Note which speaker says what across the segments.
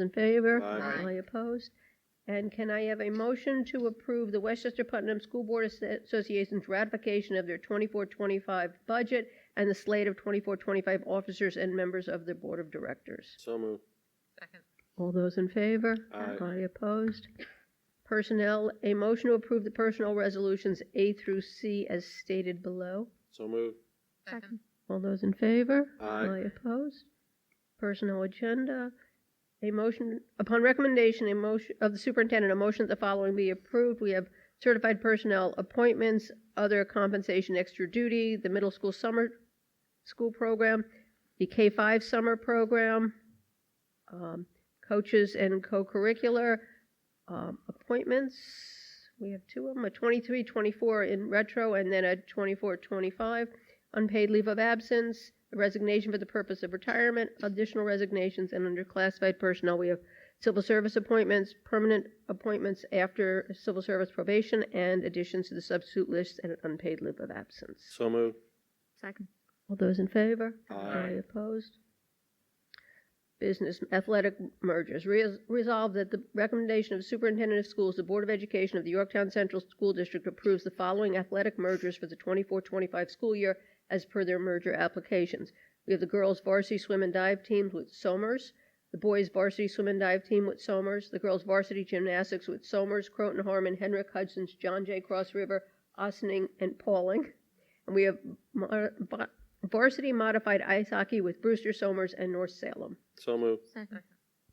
Speaker 1: in favor?
Speaker 2: Aye.
Speaker 1: All opposed? And can I have a motion to approve the Westchester Putnam School Board Asso- Association's ratification of their 24-25 budget and the slate of 24-25 officers and members of the Board of Directors?
Speaker 2: So moved.
Speaker 3: Second.
Speaker 1: All those in favor?
Speaker 2: Aye.
Speaker 1: opposed? Personnel, a motion to approve the personnel resolutions A through C as stated below.
Speaker 2: So moved.
Speaker 3: Second.
Speaker 1: All those in favor?
Speaker 2: Aye.
Speaker 1: opposed? Personnel agenda, a motion, upon recommendation, a motion, of the superintendent, a motion that the following be approved. We have certified personnel appointments, other compensation, extra duty, the middle school summer school program, the K-5 summer program, um, coaches and co-curricular, um, appointments. We have two of them, a 23, 24 in retro, and then a 24, 25 unpaid leave of absence, resignation for the purpose of retirement, additional resignations, and under classified personnel, we have civil service appointments, permanent appointments after civil service probation, and additions to the substitute list and an unpaid leave of absence.
Speaker 2: So moved.
Speaker 3: Second.
Speaker 1: All those in favor?
Speaker 2: Aye.
Speaker 1: opposed? Business athletic mergers. Res- Resolved that the recommendation of Superintendent of Schools, the Board of Education of the Yorktown Central School District approves the following athletic mergers for the 24-25 school year as per their merger applications. We have the girls varsity swim and dive teams with Somers, the boys varsity swim and dive team with Somers, the girls varsity gymnastics with Somers, Croton Harmon, Henrik Hudson's, John J. Cross River, Ossining, and Pauling. And we have mo- va- varsity modified ice hockey with Brewster Somers and North Salem.
Speaker 2: So moved.
Speaker 3: Second.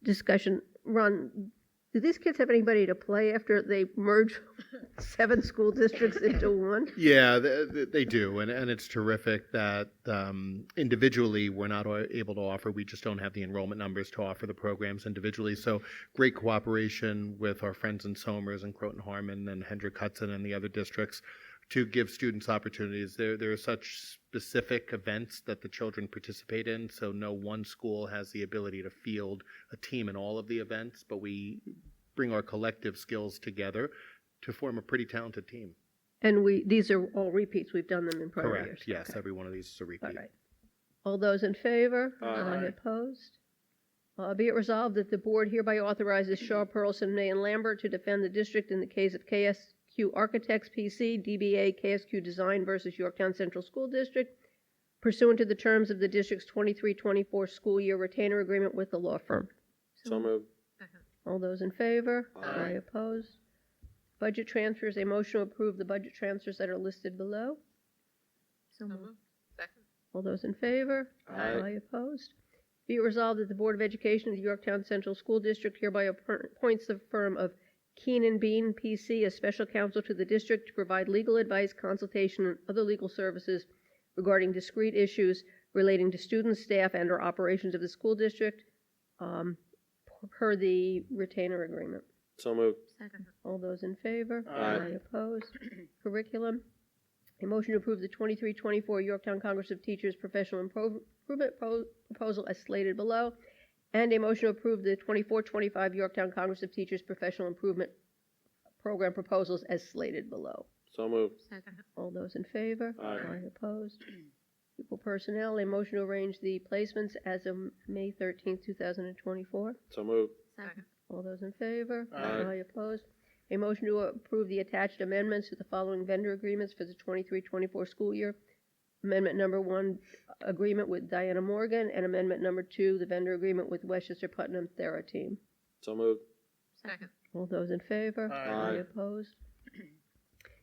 Speaker 1: Discussion, Ron, do these kids have anybody to play after they merge seven school districts into one?
Speaker 4: Yeah, th- th- they do, and and it's terrific that um, individually we're not o- able to offer. We just don't have the enrollment numbers to offer the programs individually. So great cooperation with our friends in Somers and Croton Harmon and Hendrick Hudson and the other districts to give students opportunities. There there are such specific events that the children participate in, so no one school has the ability to field a team in all of the events, but we bring our collective skills together to form a pretty talented team.
Speaker 1: And we, these are all repeats, we've done them in prior years.
Speaker 4: Correct, yes,
Speaker 1: Okay.
Speaker 4: every one of these is a
Speaker 1: All
Speaker 4: repeat.
Speaker 1: right. All those in favor?
Speaker 2: Aye. Aye.
Speaker 1: Opposed? Uh, Be it resolved that the board hereby authorizes Shaw, Pearlson, May, and Lambert to defend the district in the case of KSQ Architects PC, DBA KSQ Design versus Yorktown Central School District pursuant to the terms of the district's 23-24 school year retainer agreement with the law firm.
Speaker 2: So moved.
Speaker 1: All those in favor?
Speaker 2: Aye.
Speaker 1: Opposed? Budget transfers, a motion to approve the budget transfers that are listed below.
Speaker 3: So moved. Mm-hmm. Second.
Speaker 1: All those in favor?
Speaker 2: Aye.
Speaker 1: opposed? Be it resolved that the Board of Education of the Yorktown Central School District hereby appar- appoints the firm of Keenan Bean, P.C., as special counsel to the district to provide legal advice, consultation, and other legal services regarding discrete issues relating to students, staff, and/or operations of the school district um, per the retainer agreement.
Speaker 2: So moved.
Speaker 3: Second.
Speaker 1: All those in favor?
Speaker 2: Aye.
Speaker 1: opposed? Curriculum. A motion to approve the 23-24 Yorktown Congress of Teachers Professional Impro- Improvement Pro- Proposal as slated below, and a motion to approve the 24-25 Yorktown Congress of Teachers Professional Improvement Program Proposals as slated below.
Speaker 2: So moved.
Speaker 3: Second.
Speaker 1: All those in favor?
Speaker 2: Aye.
Speaker 1: opposed? Pupil personnel, a motion to arrange the placements as of May 13th, 2024.
Speaker 2: So moved.
Speaker 3: Second.
Speaker 1: All those in favor?
Speaker 2: Aye.
Speaker 1: opposed? A motion to approve the attached amendments to the following vendor agreements for the 23-24 school year. Amendment number one, agreement with Diana Morgan, and amendment number two, the vendor agreement with Westchester Putnam Thera Team.
Speaker 2: So moved.
Speaker 3: Second.
Speaker 1: All those in favor?
Speaker 2: Aye. Aye.
Speaker 1: opposed?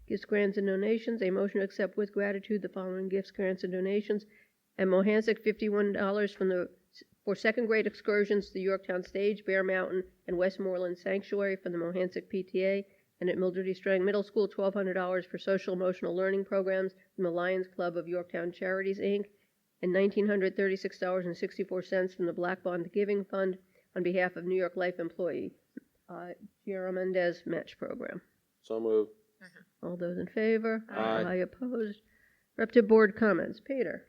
Speaker 1: Gifts, grants, and donations, a motion to accept with gratitude the following gifts, grants, and donations. And Mohansick, fifty-one dollars from the, for second grade excursions to the Yorktown Stage, Bear Mountain, and Westmoreland Sanctuary from the Mohansick PTA. And at Mildred E. Strang Middle School, twelve hundred dollars for social emotional learning programs from the Lions Club of Yorktown Charities, Inc. And nineteen hundred thirty-six dollars and sixty-four cents from the Black Bond Giving Fund on behalf of New York Life Employee, uh, Guillermo Mendez Match Program.
Speaker 2: So moved.
Speaker 1: All those in favor?
Speaker 2: Aye.
Speaker 1: opposed? Reptive board comments. Peter?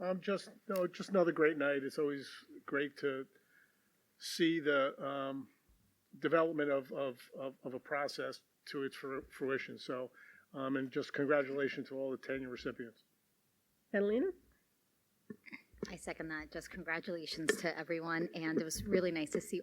Speaker 5: Um, just, no, just another great night. It's always great to see the, um, development of, of, of, of a process to its fru- fruition. So, um, and just congratulations to all the tenure recipients.
Speaker 1: Catalina?
Speaker 6: I second that. Just congratulations to everyone. And it was really nice to see